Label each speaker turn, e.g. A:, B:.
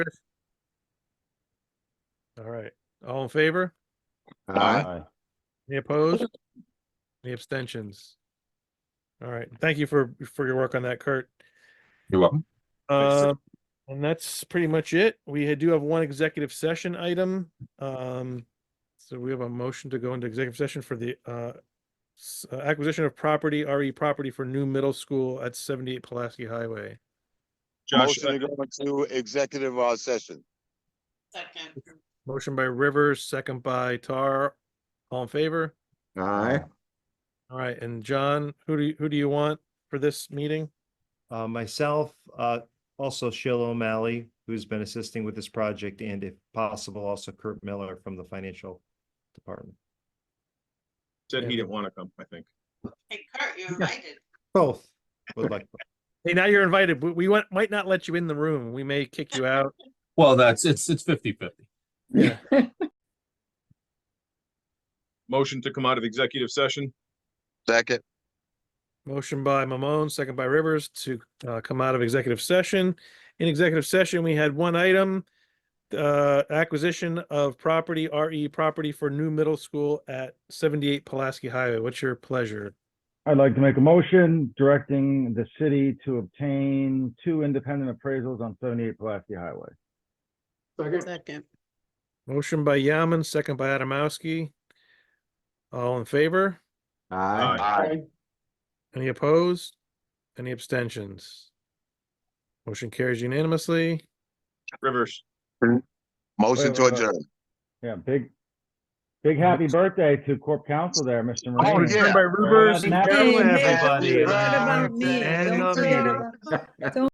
A: All right, all in favor?
B: Aye.
A: Any opposed? Any abstentions? All right, thank you for, for your work on that, Kurt.
C: You're welcome.
B: Thanks.
A: Um, and that's pretty much it. We had- do have one executive session item. Um, so we have a motion to go into executive session for the, uh, s- uh, acquisition of property, RE property for new middle school at seventy-eight Pulaski Highway.
B: Josh,
D: Motion to go into executive uh, session.
E: Second.
A: Motion by Rivers, second by Tar. All in favor?
B: Aye.
A: All right, and John, who do you, who do you want for this meeting?
F: Uh, myself, uh, also Sheila O'Malley, who's been assisting with this project, and if possible, also Kurt Miller from the financial department.
C: Said he didn't want to come, I think.
E: Hey Kurt, you're invited.
F: Both would like,
A: Hey, now you're invited. but We want, might not let you in the room. We may kick you out.
C: Well, that's, it's, it's fifty fifty.
A: Yeah.
C: Motion to come out of executive session.
D: Second,
A: Motion by Mamone, second by Rivers to uh, come out of executive session. In executive session, we had one item, uh, acquisition of property, RE property for new middle school at 78 Pulaski Highway. What's your pleasure?
G: I'd like to make a motion directing the city to obtain two independent appraisals on seventy-eight Pulaski Highway.
E: Second.
A: Motion by Yaman, second by Adamowski. All in favor?
B: Aye.
D: aye,
A: Any opposed? Any abstentions? Motion carries unanimously.
C: Rivers.
D: motion to
G: Wait, wait, wait.
D: adjourn.
G: Yeah, big, big happy birthday to Corp Council there, Mr.
D: Oh,
G: Marine.
D: yeah.
A: By Rivers.
G: Happy
D: Happy
F: Everybody.
E: What about me?
F: And
E: Don't
F: nominated.
E: you-